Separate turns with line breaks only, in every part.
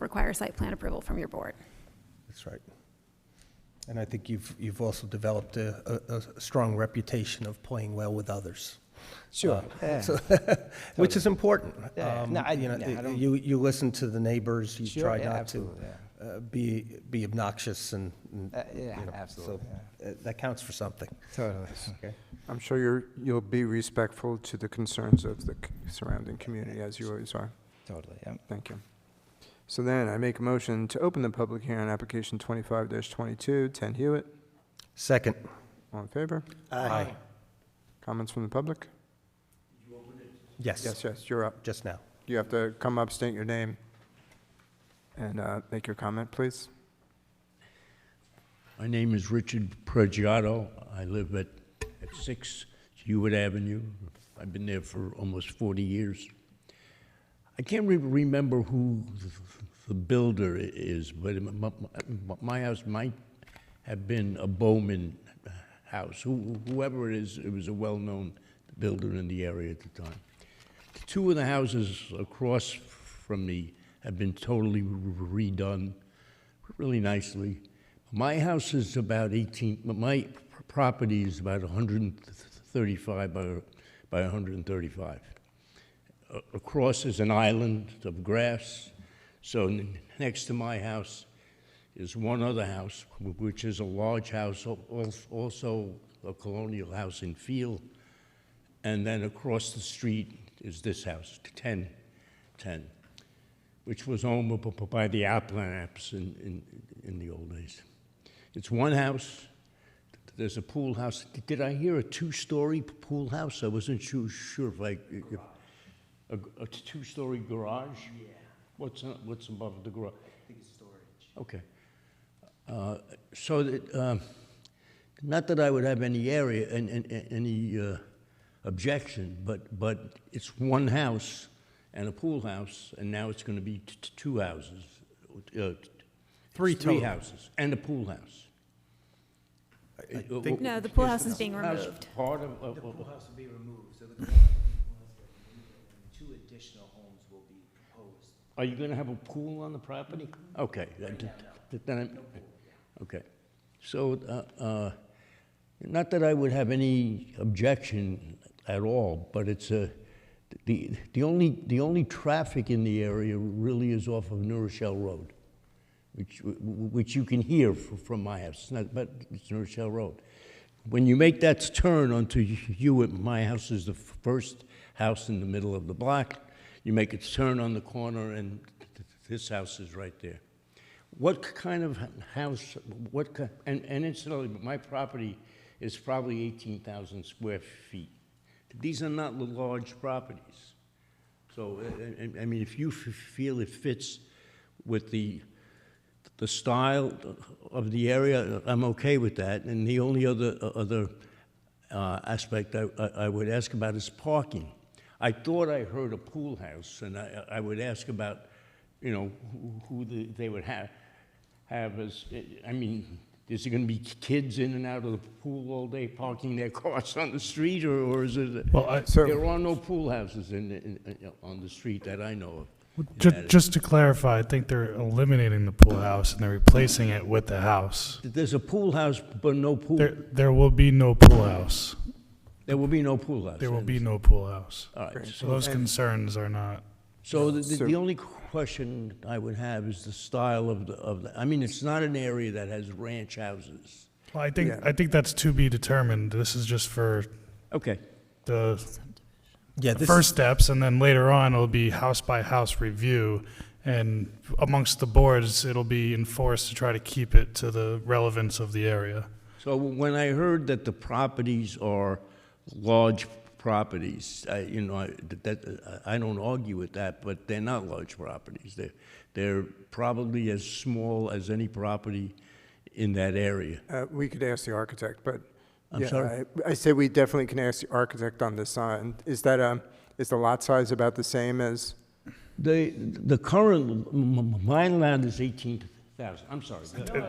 require site plan approval from your board.
That's right. And I think you've, you've also developed a, a, a strong reputation of playing well with others. Uh,
Sure. yeah.
So- Which is important.
Yeah,
Um,
no, I-
you know,
yeah, I don't-
You, you listen to the neighbors, you
Sure,
try
yeah,
not to
absolutely, yeah.
uh, be, be obnoxious and. and,
Uh, yeah,
you know,
absolutely,
so, uh, That counts for something.
Totally.
I'm sure you're, you'll be respectful to the concerns of the c- surrounding community, as you always are.
Totally. Yeah.
Thank you. So then, I make a motion to open the public hearing on application 25-22, 10 Hewitt.
Second.
All in favor?
Aye.
Comments from the public? Yes,
Yes,
yes, you're up.
just now.
You have to come up, state your name, and uh, make your comment, please.
My name is Richard Pregiato. I live at, at 6 Hewitt Avenue. I've been there for almost 40 years. I can't re- remember who th- the builder i- is, but m- m- m- my house might have been a Bowman house. Who- Whoever it is, it was a well-known builder in the area at the time. Two of the houses across from me have been totally redone, really nicely. My house is about 18, my property is about 135 by, by 135. A- Across is an island of grass, so n- next to my house is one other house, wh- which is a large house, al- al- also a colonial house in Field. And then across the street is this house, 10, 10, which was owned b- b- by the Appalachians in, in, in the old days. It's one house. There's a pool house. D- Did I hear a two-story p- pool house? I wasn't su- sure if I... if- A, a two-story garage? Yeah. What's, on- what's above the garage? I think it's storage. Okay. Uh, So that, um, not that I would have any area, an- an- an- any uh, objection, but, but it's one house and a pool house, and now it's going to be t- t- two houses. uh, t-
Three
Three
total.
houses and a pool house.
think-
No, the pool house is being
House
removed.
Part of- of, of-
house will be removed, so the garage will be removed, and two additional homes will be proposed. Mm-hmm.
are you going to have a pool on the property? Okay. that- that- then I'm- Okay. So, uh, uh, not that I would have any objection at all, but it's a, the, the only, the only traffic in the area really is off of New Rochelle Road, which, w- w- which you can hear f- from my house, It's not, but it's New Rochelle Road. When you make that turn onto Hewitt, my house is the f- first house in the middle of the block. You make its turn on the corner and th- th- this house is right there. What k- kind of h- house, what, ki- and and incidentally, my property is probably 18,000 square feet. These are not l- large properties. So, I- I I mean, if you f- feel it fits with the, the style of the area, I'm okay with that. And the only other, other uh, aspect I, I- I would ask about is parking. I thought I heard a pool house, and I, I would ask about, you know, who- who the- they would have, have as, I mean, is it gonna be kids in and out of the pool all day parking their cars on the street, or, or is it?
Well, I-
So-
There are no pool houses in, in, in- on the street that I know of. in that
Just,
area.
just to clarify, I think they're eliminating the pool house and they're replacing it with the house.
There's a pool house, but no pool,
There, there will be no pool house.
there will be no pool house.
There will be no pool house.
All right,
So those concerns are not.
So the, the,
So-
the only question I would have is the style of the, of the, I mean, it's not an area that has ranch houses.
Well, I think,
Yeah.
I think that's to be determined. This is just for
Okay.
the
Yeah, this,
first steps, and then later on, it'll be house by house review. And amongst the boards, it'll be enforced to try to keep it to the relevance of the area.
So when I heard that the properties are large properties, I, you know, I, that, I don't argue with that, but they're not large properties. They're, they're probably as small as any property in that area.
Uh, We could ask the architect, but.
I'm
yeah,
sorry?
I I said we definitely can ask the architect on this sign. Is that, um, is the lot size about the same as,
The, the current, m- m- my land is 18,000, I'm sorry.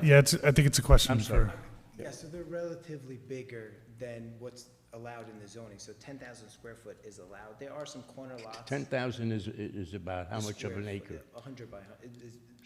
Yeah, it's, I think it's a question
I'm sorry.
for,
Yeah, so they're relatively bigger than what's allowed in the zoning, so ten thousand square foot is allowed. There are some corner lots.
10,000 is, is about how much of an acre?
A hundred by, hun- it is-